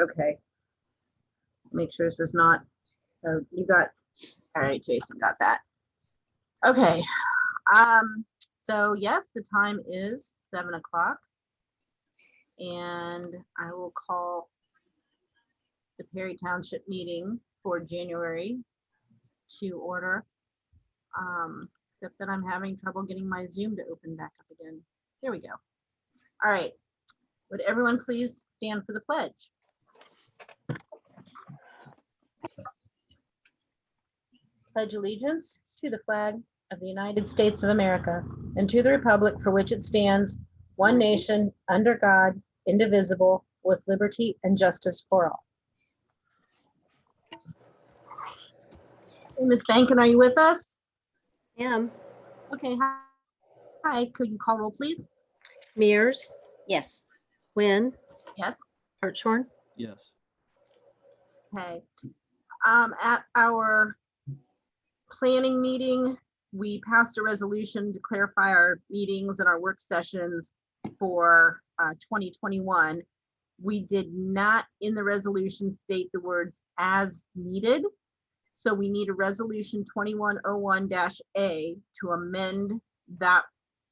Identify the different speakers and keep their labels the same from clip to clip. Speaker 1: Okay. Make sure this is not, oh, you got, all right, Jason got that. Okay, um, so yes, the time is seven o'clock. And I will call the Perry Township meeting for January to order. Um, except that I'm having trouble getting my Zoom to open back up again. There we go. All right. Would everyone please stand for the pledge? Pledge allegiance to the flag of the United States of America and to the republic for which it stands, one nation, under God, indivisible, with liberty and justice for all. Hey, Ms. Bankin, are you with us?
Speaker 2: Am,
Speaker 1: Okay, hi. Hi, could you call roll, please?
Speaker 2: Mears,
Speaker 3: Yes.
Speaker 2: Wynn,
Speaker 1: Yes?
Speaker 2: Hartshorn,
Speaker 4: Yes.
Speaker 1: Okay. Um, at our planning meeting, we passed a resolution to clarify our meetings and our work sessions for, uh, twenty twenty-one. We did not in the resolution state the words as needed. So we need a resolution twenty-one oh one A to amend that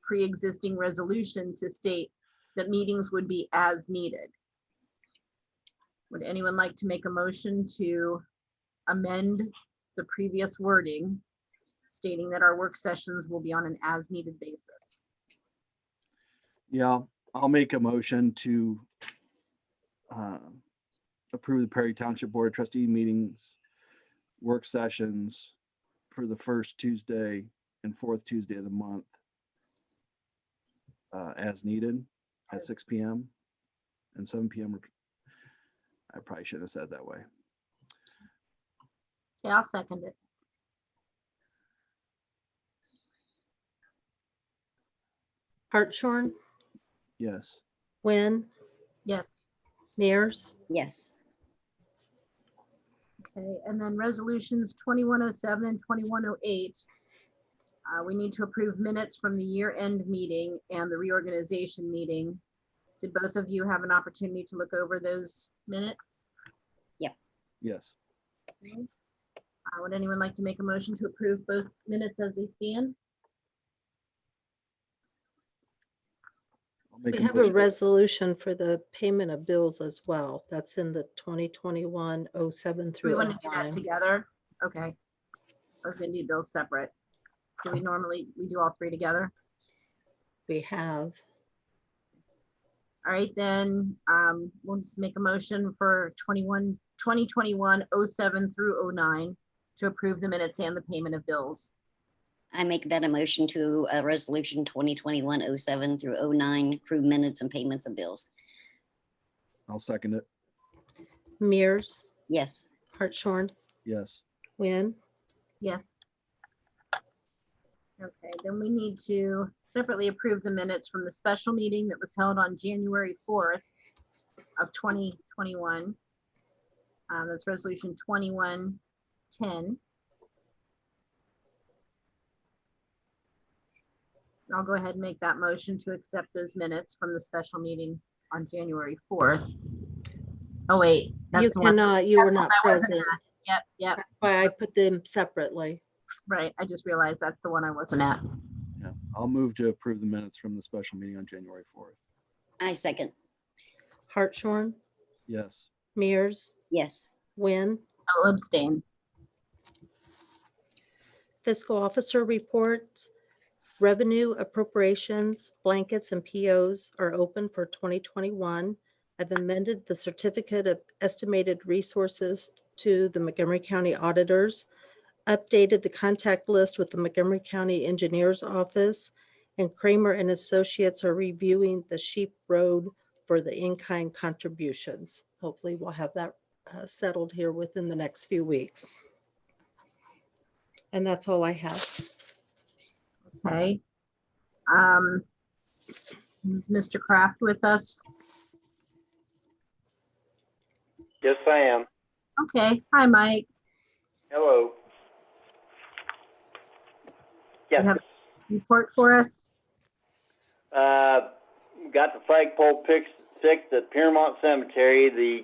Speaker 1: pre-existing resolution to state that meetings would be as needed. Would anyone like to make a motion to amend the previous wording stating that our work sessions will be on an as-needed basis?
Speaker 4: Yeah, I'll make a motion to uh, approve the Perry Township Board of Trustee meetings, work sessions for the first Tuesday and fourth Tuesday of the month uh, as needed at six PM and seven PM. I probably shouldn't have said it that way.
Speaker 1: Okay, I'll second it.
Speaker 2: Hartshorn,
Speaker 4: Yes.
Speaker 2: Wynn,
Speaker 1: Yes.
Speaker 2: Mears,
Speaker 3: Yes.
Speaker 1: Okay, and then resolutions 2107 and 2108. Uh, We need to approve minutes from the year-end meeting and the reorganization meeting. Did both of you have an opportunity to look over those minutes?
Speaker 4: Yes.
Speaker 1: Uh, Would anyone like to make a motion to approve both minutes as they stand?
Speaker 4: I'll make
Speaker 2: we have a
Speaker 4: motion-
Speaker 2: resolution for the payment of bills as well. That's in the 2021-07
Speaker 1: We
Speaker 2: through
Speaker 1: want to do that
Speaker 2: 09.
Speaker 1: together? Okay. I was gonna do bills separate. Do we normally, we do all three together?
Speaker 2: We have,
Speaker 1: All right, then, um, we'll just make a motion for 21 2021 07 through 09 to approve the minutes and the payment of bills.
Speaker 3: I make that a motion to uh, Resolution 2021-07 through 09, approve minutes and payments of bills.
Speaker 4: I'll second it.
Speaker 2: Mears,
Speaker 3: Yes.
Speaker 2: Hartshorn,
Speaker 4: Yes.
Speaker 2: Wynn,
Speaker 1: Yes. Okay, then we need to separately approve the minutes from the special meeting that was held on January fourth of twenty twenty-one. Um, that's resolution twenty-one ten. I'll go ahead and make that motion to accept those minutes from the special meeting on January fourth. Oh, wait.
Speaker 2: you
Speaker 1: that's the one.
Speaker 2: cannot, you were
Speaker 1: That's
Speaker 2: not
Speaker 1: when I wasn't
Speaker 2: present.
Speaker 1: at. Yep, yep.
Speaker 2: That's why I put them separately.
Speaker 1: Right, I just realized that's the one I wasn't at.
Speaker 4: Yeah. I'll move to approve the minutes from the special meeting on January fourth.
Speaker 3: I second.
Speaker 2: Hartshorn,
Speaker 4: Yes.
Speaker 2: Mears,
Speaker 3: Yes.
Speaker 2: Wynn,
Speaker 1: I'll abstain.
Speaker 2: fiscal officer reports, revenue appropriations, blankets, and POs are open for 2021. I've amended the certificate of estimated resources to the Montgomery County auditors, updated the contact list with the Montgomery County Engineers Office, and Kramer and Associates are reviewing the Sheep Road for the in-kind contributions. Hopefully, we'll have that uh, settled here within the next few weeks. And that's all I have.
Speaker 1: Okay. Um, is Mr. Kraft with us?
Speaker 5: Yes, I am.
Speaker 1: Okay, hi, Mike.
Speaker 5: Hello. Yes,
Speaker 1: have- Report for us?
Speaker 5: uh, got the flagpole pics- fixed at Piermont Cemetery. The